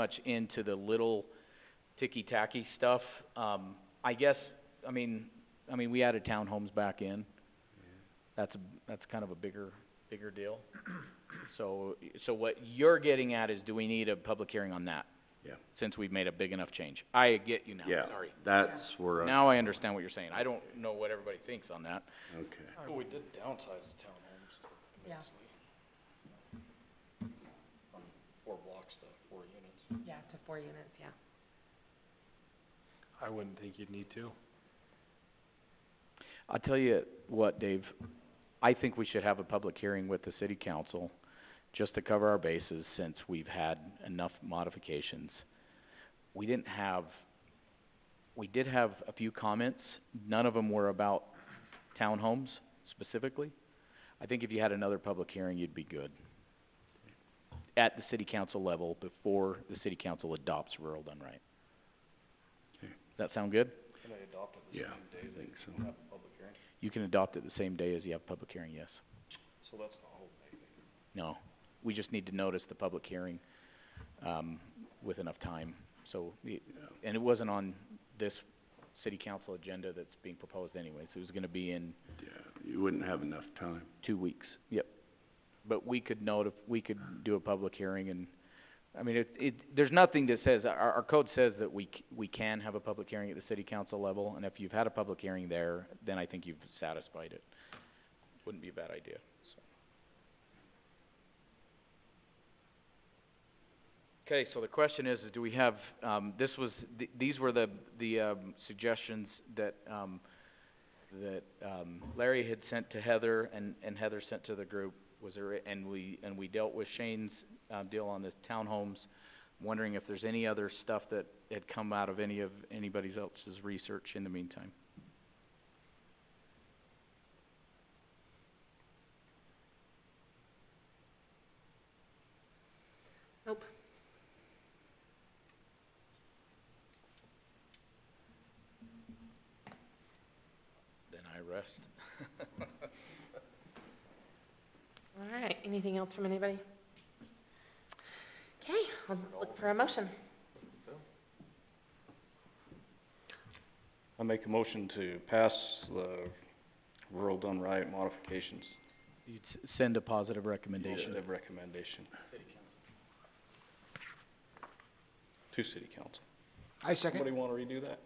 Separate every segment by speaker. Speaker 1: much into the little ticky-tacky stuff. Um, I guess, I mean, I mean, we added townhomes back in. That's, a that's kind of a bigger, bigger deal. So, so what you're getting at is, do we need a public hearing on that?
Speaker 2: Yeah.
Speaker 1: Since we've made a big enough change. I get you now,
Speaker 2: Yeah,
Speaker 1: sorry.
Speaker 2: that's where, I-
Speaker 1: Now I understand what you're saying. I don't know what everybody thinks on that.
Speaker 2: okay.
Speaker 3: Well, we did downsize the townhomes
Speaker 4: Yeah.
Speaker 3: immensely. From four blocks to four units.
Speaker 4: Yeah, to four units, yeah.
Speaker 3: I wouldn't think you'd need to.
Speaker 1: I'll tell you what, Dave, I think we should have a public hearing with the city council just to cover our bases since we've had enough modifications. We didn't have, we did have a few comments, none of them were about townhomes specifically. I think if you had another public hearing, you'd be good. At the city council level before the city council adopts rural done right.
Speaker 2: Okay.
Speaker 1: Does that sound good?
Speaker 3: Can I adopt it the
Speaker 2: Yeah,
Speaker 3: same day
Speaker 2: I
Speaker 3: that
Speaker 2: think so.
Speaker 3: you have a public hearing?
Speaker 1: You can adopt it the same day as you have public hearing, yes.
Speaker 3: So that's not holding anything.
Speaker 1: No, we just need to notice the public hearing, um, with enough time, so, the- and it wasn't on this city council agenda that's being proposed anyways, it was gonna be in
Speaker 2: Yeah, you wouldn't have enough time.
Speaker 1: two weeks, yep. But we could notif- we could do a public hearing and, I mean, it, it, there's nothing that says, our, our code says that we c- we can have a public hearing at the city council level, and if you've had a public hearing there, then I think you've satisfied it. Wouldn't be a bad idea, so. Okay, so the question is, is do we have, um, this was, th- these were the, the, um, suggestions that, um, that, um, Larry had sent to Heather and, and Heather sent to the group. Was there, a- and we, and we dealt with Shane's, um, deal on the townhomes. Wondering if there's any other stuff that had come out of any of, anybody else's research in the meantime.
Speaker 4: Nope.
Speaker 1: Then I rest.
Speaker 4: All right, anything else from anybody? Okay, I'll look for a motion.
Speaker 3: I make a motion to pass the rural done right modifications.
Speaker 1: You'd s- send a positive recommendation.
Speaker 3: Positive recommendation. To city council.
Speaker 5: I
Speaker 3: Somebody
Speaker 5: second.
Speaker 3: wanna redo that?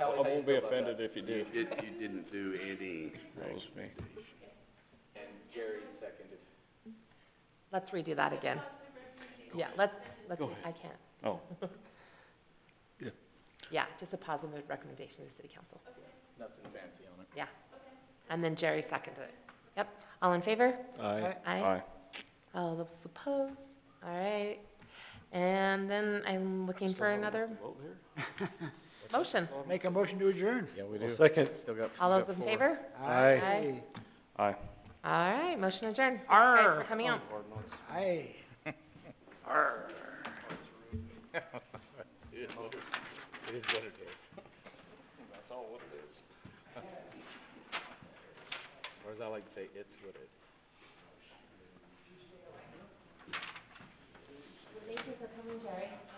Speaker 3: I won't be offended if you do.
Speaker 2: You did, you didn't do any,
Speaker 3: That was me.
Speaker 4: Let's redo that again. Yeah, let's, let's,
Speaker 3: Go ahead.
Speaker 4: I can't.
Speaker 3: Oh,
Speaker 4: Yeah, just a positive recommendation to the city council. Nothing fancy on it. Yeah. And then Jerry seconded it. Yep, all in favor?
Speaker 3: aye.
Speaker 4: Aye. All those opposed? All right. And then I'm looking for another motion.
Speaker 5: Make a motion to adjourn.
Speaker 1: Yeah, we do.
Speaker 3: Second.
Speaker 1: Still got,
Speaker 4: All those in favor?
Speaker 3: Aye.
Speaker 4: Aye.
Speaker 3: Aye.
Speaker 4: All right, motion adjourned. Thanks
Speaker 5: Arr.
Speaker 4: for coming out.
Speaker 5: Aye.
Speaker 1: or as I like to say, it's what it is.
Speaker 4: Thank you for coming, Jerry.